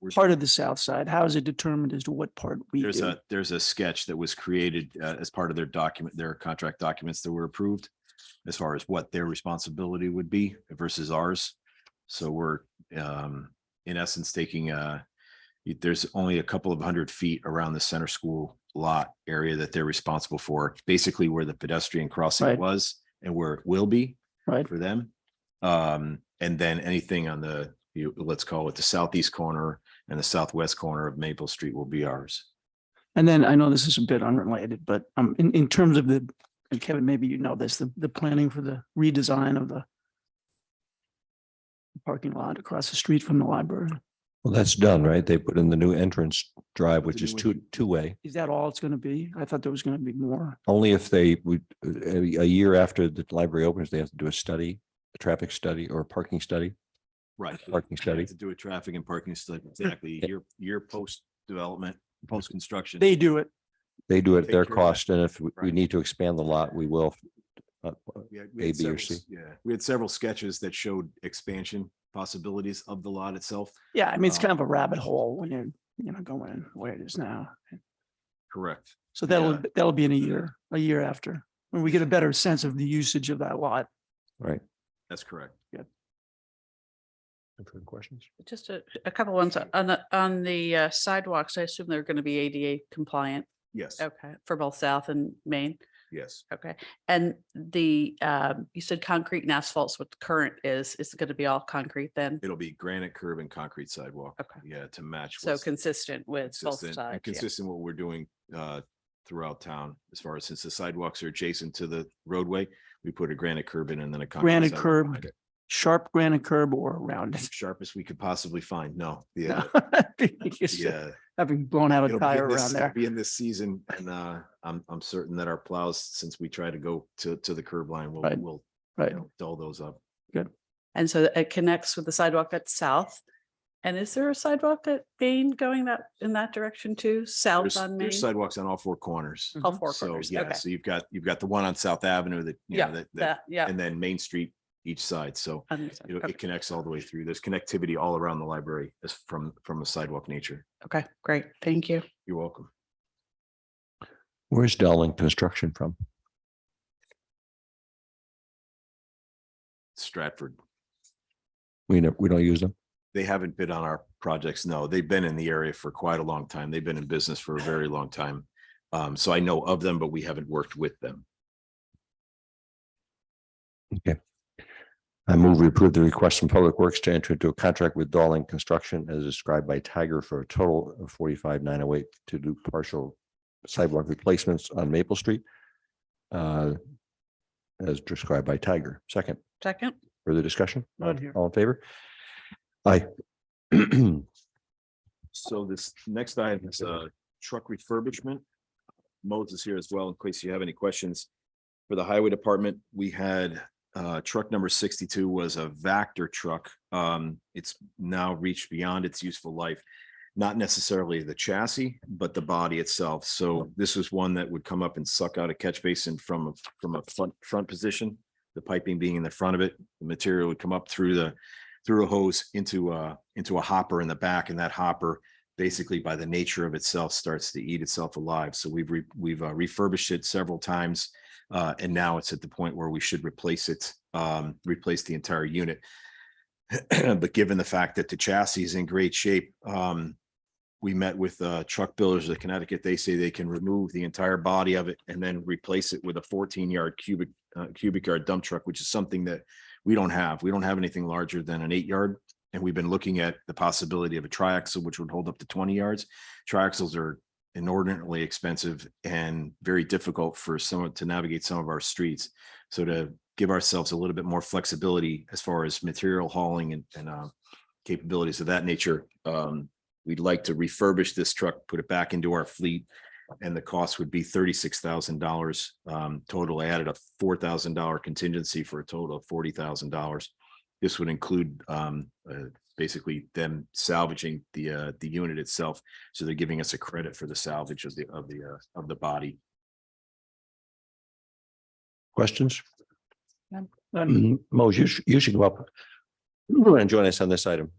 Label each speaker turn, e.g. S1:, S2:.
S1: We're-
S2: part of the south side? How is it determined as to what part we
S1: There's
S2: do?
S1: a, there's a sketch that was created uh, as part of their document, their contract documents that were approved as far as what their responsibility would be versus ours. So we're um, in essence taking uh y- there's only a couple of hundred feet around the center school lot area that they're responsible for, basically where the pedestrian crossing
S2: Right.
S1: was and where it will be
S2: Right.
S1: for them. Um, and then anything on the, you, let's call it the southeast corner and the southwest corner of Maple Street will be ours.
S2: And then I know this is a bit unrelated, but um, in, in terms of the, and Kevin, maybe you know this, the, the planning for the redesign of the parking lot across the street from the library.
S3: Well, that's done, right? They put in the new entrance drive, which
S2: new
S3: is two, two-way.
S2: Is that all it's going to be? I thought there was going to be more.
S3: Only if they would, uh, a, a year after the library opens, they have to do a study, a traffic study or a parking study,
S1: Right.
S3: parking
S1: We have
S3: study.
S1: To do a traffic and parking study, exactly,
S3: Yeah.
S1: year, year post-development, post-construction.
S2: They do it.
S3: They do it at
S1: Take care
S3: their
S1: of that.
S3: cost, and if we- we
S1: Right.
S3: need to expand the lot, we will. Uh,
S1: We had- we had
S3: A, B,
S1: several
S3: or C.
S1: s- Yeah, we had several sketches that showed expansion possibilities of the lot itself.
S2: Yeah, I mean, it's
S1: Uh,
S2: kind of a rabbit hole when you're, you know, going where it is now.
S1: Correct.
S2: So that'll,
S1: Yeah.
S2: that'll be in a year, a year after, when we get a better sense of the usage of that lot.
S3: Right.
S1: That's correct.
S3: Further questions?
S4: Just a, a couple ones on the, on the uh, sidewalks. I assume they're going to be ADA compliant.
S1: Yes,
S4: Okay, for both South and Main.
S1: yes.
S4: Okay, and the, um, you said concrete and asphalt's what the current is. Is it going to be all concrete then?
S1: It'll be granite curb and concrete sidewalk.
S4: Okay.
S1: Yeah, to match.
S4: So
S1: what's
S4: consistent with both
S1: consistent- and
S4: sides. yeah.
S1: Consistent what we're doing uh, throughout town, as far as since the sidewalks are adjacent to the roadway, we put a granite curb in and then a. concrete
S2: Granite
S1: sidewalk
S2: curb.
S1: behind it.
S2: Sharp granite curb or rounded.
S1: Sharpest we could possibly find. No, yeah,
S2: Yeah,
S1: yeah.
S2: Having blown out a
S1: It'll be in
S2: tire
S1: this-
S2: around
S1: it'll
S2: there.
S1: Be in this season and uh, I'm, I'm certain that our plows, since we try to go to, to the curb line, will,
S2: Right,
S1: will you
S2: Right.
S1: know, dull those up.
S4: And so it connects with the sidewalk at South. And is there a sidewalk at Main going that, in that direction too? South
S1: There's
S4: on
S1: there's
S4: Main?
S1: sidewalks on all four corners.
S4: All four
S1: So,
S4: corners.
S1: yeah,
S4: Okay,
S1: so you've got, you've got the one on South Avenue that, you know,
S4: yeah,
S1: that- that,
S4: that, yeah.
S1: and then Main Street each side. So
S4: understood.
S1: you know,
S4: Okay.
S1: it connects all the way through. There's connectivity all around the library as from, from a sidewalk nature.
S4: Okay, great. Thank you.
S1: You're welcome.
S3: Where's Dowling Construction from?
S1: Stratford.
S3: We know, we don't use them.
S1: They haven't bid on our projects. No, they've been in the area for quite a long time. They've been in business for a very long time. Um, so I know of them, but we haven't worked with them.
S3: I move we approve the request from Public Works to enter into a contract with Dowling Construction as described by Tiger for a total of forty-five nine oh eight to do partial sidewalk replacements on Maple Street. uh, As described by Tiger. Second,
S4: Second?
S3: further discussion? All-
S2: Not here.
S3: All in favor? Aye.
S1: So this next item is uh truck refurbishment. Modes is here as well, in case you have any questions. For the highway department, we had uh truck number sixty-two was a Vector truck. Um, it's now reached beyond its useful life. Not necessarily the chassis, but the body itself. So this was one that would come up and suck out a catch basin from a from a front front position. The piping being in the front of it, the material would come up through the through a hose into a into a hopper in the back and that hopper basically by the nature of itself starts to eat itself alive. So we've re- we've uh, refurbished it several times. Uh, and now it's at the point where we should replace it, um, replace the entire unit. But given the fact that the chassis is in great shape, um, we met with uh, truck builders of Connecticut. They say they can remove the entire body of it and then replace it with a 14 yard cubic uh, cubic yard dump truck, which is something that we don't have. We don't have anything larger than an eight yard. And we've been looking at the possibility of a triaxle, which would hold up to twenty yards. Triaxles are inordinately expensive and very difficult for someone to navigate some of our streets. So to give ourselves a little bit more flexibility as far as material hauling and, and, uh, capabilities of that nature, um, we'd like to refurbish this truck, put it back into our fleet. And the cost would be thirty-six thousand dollars, um, total. I added a four thousand dollar contingency for a total of forty thousand dollars. This would include, um, uh, basically them salvaging the, uh, the unit itself. So they're giving us a credit for the salvage of the, of the, uh, of the body.
S3: Questions?
S2: None.
S3: Mose, you should, you should go up and join us on this item.